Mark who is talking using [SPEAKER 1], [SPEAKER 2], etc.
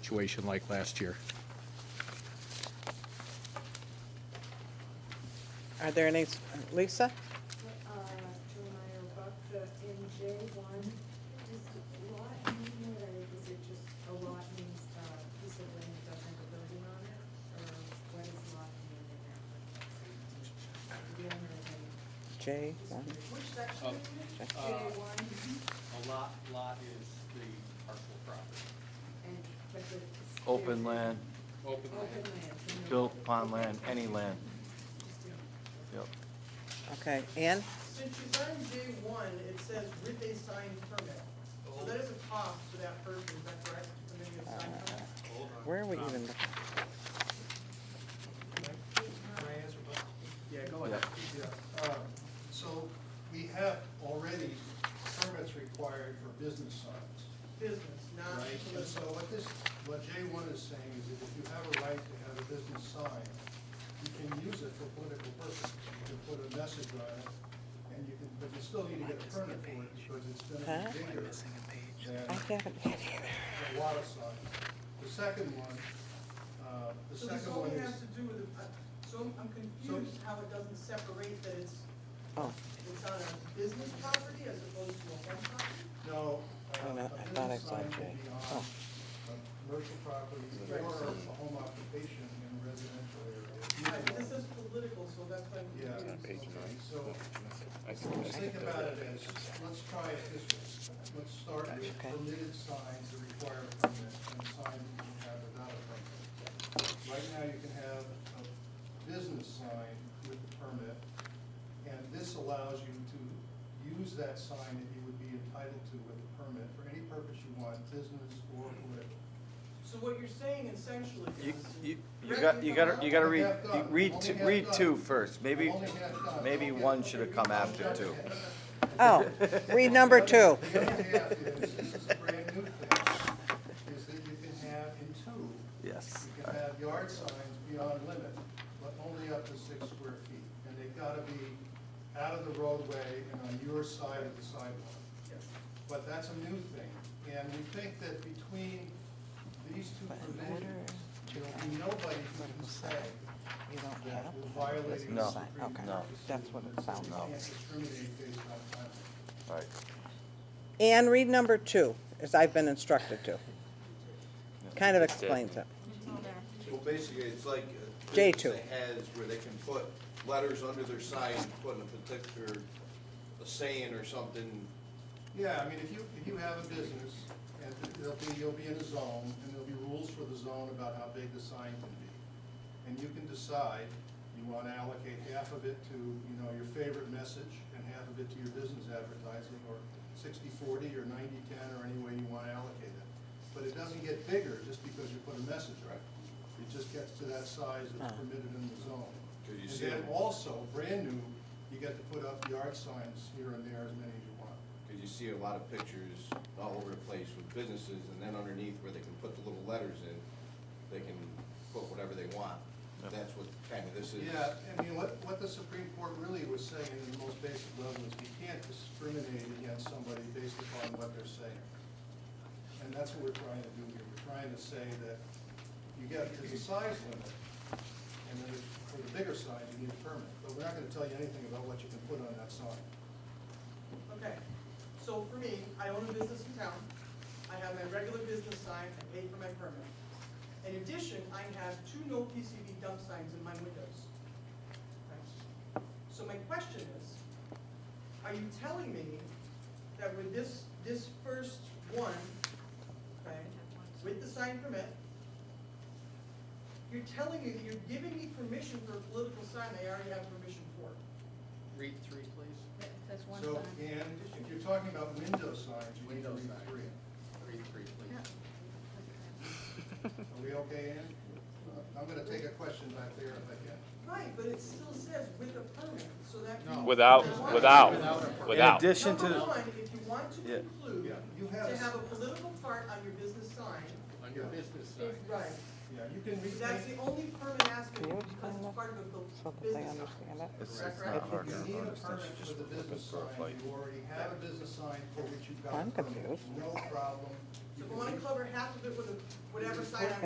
[SPEAKER 1] situation like last year.
[SPEAKER 2] Are there any, Lisa?
[SPEAKER 3] uh, Joe Meyer about the NJ one, does lot mean there, or is it just, a lot means uh, a piece of land that doesn't have a building on it? Or what does lot mean in that one? The owner of it.
[SPEAKER 2] J, one.
[SPEAKER 3] Which section
[SPEAKER 4] Oh,
[SPEAKER 3] is it?
[SPEAKER 4] uh,
[SPEAKER 3] J one,
[SPEAKER 4] A lot, lot is the parcel property.
[SPEAKER 3] and, but the.
[SPEAKER 5] Open land,
[SPEAKER 4] Open
[SPEAKER 3] Open
[SPEAKER 4] land.
[SPEAKER 3] land. no-
[SPEAKER 5] built upon land, any land.
[SPEAKER 3] Just in-
[SPEAKER 5] Yep.
[SPEAKER 2] Okay, Ann?
[SPEAKER 6] Since you signed J one, it says with a signed permit. So that is a cost to that person, is that correct? The minute you sign
[SPEAKER 2] Uh,
[SPEAKER 6] permit?
[SPEAKER 4] Hold on.
[SPEAKER 2] Where are we
[SPEAKER 4] Uh,
[SPEAKER 2] even? looking?
[SPEAKER 7] Can I answer, Bob? Yeah, go
[SPEAKER 5] ahead.
[SPEAKER 7] Yeah, um, so we have already permits required for business signs,
[SPEAKER 6] Business, not
[SPEAKER 7] right? And so
[SPEAKER 6] political.
[SPEAKER 7] what this, what J one is saying is that if you have a right to have a business sign, you can use it for political purposes. You can put a message on it, and you can, but you still need to get a permit for it because it's
[SPEAKER 2] Huh?
[SPEAKER 7] gonna be
[SPEAKER 2] I
[SPEAKER 7] bigger than
[SPEAKER 2] haven't had either.
[SPEAKER 7] a lot of signs. The second one, uh, the
[SPEAKER 6] So this
[SPEAKER 7] second one
[SPEAKER 6] only
[SPEAKER 7] is.
[SPEAKER 6] has to do with, the- uh, so I'm- I'm confused how it doesn't separate that it's,
[SPEAKER 2] Oh,
[SPEAKER 6] it's on a business property as opposed to a home property?
[SPEAKER 7] No. uh,
[SPEAKER 2] I don't know. I thought I saw Jay. Oh.
[SPEAKER 7] Commercial property or a home occupation in residential
[SPEAKER 6] Right, but
[SPEAKER 7] area.
[SPEAKER 6] this is political, so that's why I'm
[SPEAKER 7] Yeah.
[SPEAKER 6] confused.
[SPEAKER 7] okay, So, let's think about it as, let's try it this way. Let's start with
[SPEAKER 2] Okay.
[SPEAKER 7] permitted signs that require a permit and signs that you have without a permit. Right now, you can have a business sign with a permit, and this allows you to use that sign that you would be entitled to with a permit for any purpose you want, business or political.
[SPEAKER 6] So what you're saying essentially
[SPEAKER 5] You,
[SPEAKER 6] is.
[SPEAKER 5] you, you got, you gotta, you gotta read, you read, two- read two first, maybe, maybe one should have come after two.
[SPEAKER 2] oh, read number two.
[SPEAKER 7] The other half is, this is a brand new thing, is that you can have in two,
[SPEAKER 5] Yes.
[SPEAKER 7] you can have yard signs beyond limit, but only up to six square feet. And they've gotta be out of the roadway and on your side of the sidewalk. But that's a new thing, and we think that between these two
[SPEAKER 2] But in order
[SPEAKER 7] provisions,
[SPEAKER 2] to
[SPEAKER 7] there'll
[SPEAKER 2] have
[SPEAKER 7] be nobody who can
[SPEAKER 2] political
[SPEAKER 7] say
[SPEAKER 2] You don't
[SPEAKER 7] that
[SPEAKER 2] have
[SPEAKER 7] we're
[SPEAKER 2] a
[SPEAKER 7] violating the
[SPEAKER 2] business
[SPEAKER 5] No.
[SPEAKER 2] sign.
[SPEAKER 7] Supreme
[SPEAKER 2] Okay,
[SPEAKER 5] No.
[SPEAKER 7] Court decision
[SPEAKER 2] that's what it
[SPEAKER 7] that says
[SPEAKER 2] sounds
[SPEAKER 7] you
[SPEAKER 5] No.
[SPEAKER 2] like.
[SPEAKER 7] can't discriminate based on time.
[SPEAKER 5] Right,
[SPEAKER 2] Ann, read number two, as I've been instructed to. Kind of explains it.
[SPEAKER 8] Well, basically, it's like. a
[SPEAKER 2] J
[SPEAKER 8] business
[SPEAKER 2] two.
[SPEAKER 8] that Has where they can put letters under their sign, putting a particular, a saying or something.
[SPEAKER 7] Yeah, I mean, if you, if you have a business, and there'll be, you'll be in a zone, and there'll be rules for the zone about how big the sign can be. And you can decide, you wanna allocate half of it to, you know, your favorite message, and half of it to your business advertising, or sixty-forty, or ninety-ten, or any way you wanna allocate it. But it doesn't get bigger just because you put a message, right? It just gets to that size that's permitted in the zone.
[SPEAKER 8] Could you
[SPEAKER 7] And
[SPEAKER 8] see
[SPEAKER 7] then
[SPEAKER 8] it?
[SPEAKER 7] also, brand new, you get to put up yard signs here and there, as many as you want.
[SPEAKER 8] Cause you see a lot of pictures all over the place with businesses and then underneath where they can put the little letters in, they can put whatever they want. That's what kind of this is.
[SPEAKER 7] Yeah, I mean, what, what the Supreme Court really was saying in the most basic level is we can't discriminate against somebody based upon what they're saying. And that's what we're trying to do here. We're trying to say that you get, there's a size limit, and then for the bigger size, you need a permit. But we're not gonna tell you anything about what you can put on that sign.
[SPEAKER 6] Okay, so for me, I own a business in town, I have my regular business sign, I pay for my permit. In addition, I have two no PCB dump signs in my windows. Right. So my question is, are you telling me that with this, this first one, okay, with the sign permit, you're telling me that you're giving me permission for a political sign I already have permission for?
[SPEAKER 4] Read three, please.
[SPEAKER 9] That's one
[SPEAKER 7] So,
[SPEAKER 9] sign.
[SPEAKER 7] and if you're talking about window signs, you need to
[SPEAKER 4] Window
[SPEAKER 7] read
[SPEAKER 4] signs.
[SPEAKER 7] three.
[SPEAKER 4] Read three, please.
[SPEAKER 7] Are we okay, Ann? Uh, I'm gonna take a question back there if I can.
[SPEAKER 6] Right, but it still says with a permit, so that. means-
[SPEAKER 10] Without,
[SPEAKER 6] Now,
[SPEAKER 10] without, without.
[SPEAKER 5] In addition
[SPEAKER 6] Number
[SPEAKER 5] to,
[SPEAKER 6] one, if you want to
[SPEAKER 5] Yeah.
[SPEAKER 6] include,
[SPEAKER 7] Yeah, you have.
[SPEAKER 6] to have a political part on your business sign,
[SPEAKER 4] On your business
[SPEAKER 6] is
[SPEAKER 4] side.
[SPEAKER 6] right.
[SPEAKER 7] Yeah, you can read.
[SPEAKER 6] That's the only permit aspect,
[SPEAKER 2] Can you
[SPEAKER 6] because
[SPEAKER 2] explain
[SPEAKER 6] it's
[SPEAKER 2] that?
[SPEAKER 6] part of a
[SPEAKER 2] So
[SPEAKER 6] bu-
[SPEAKER 2] that they
[SPEAKER 6] business
[SPEAKER 2] understand it.
[SPEAKER 5] it's it's
[SPEAKER 6] Correct, correct.
[SPEAKER 5] not
[SPEAKER 7] If
[SPEAKER 5] hard to
[SPEAKER 7] you need a
[SPEAKER 5] understand,
[SPEAKER 7] permit
[SPEAKER 5] she's
[SPEAKER 7] for
[SPEAKER 5] just
[SPEAKER 7] the
[SPEAKER 5] looking
[SPEAKER 7] business
[SPEAKER 5] for a
[SPEAKER 7] sign,
[SPEAKER 5] fight.
[SPEAKER 7] you already have a business sign for which you've got a
[SPEAKER 2] I'm
[SPEAKER 7] permit.
[SPEAKER 2] confused.
[SPEAKER 7] No problem.
[SPEAKER 6] So if I wanna cover half of it with a, whatever sign I'm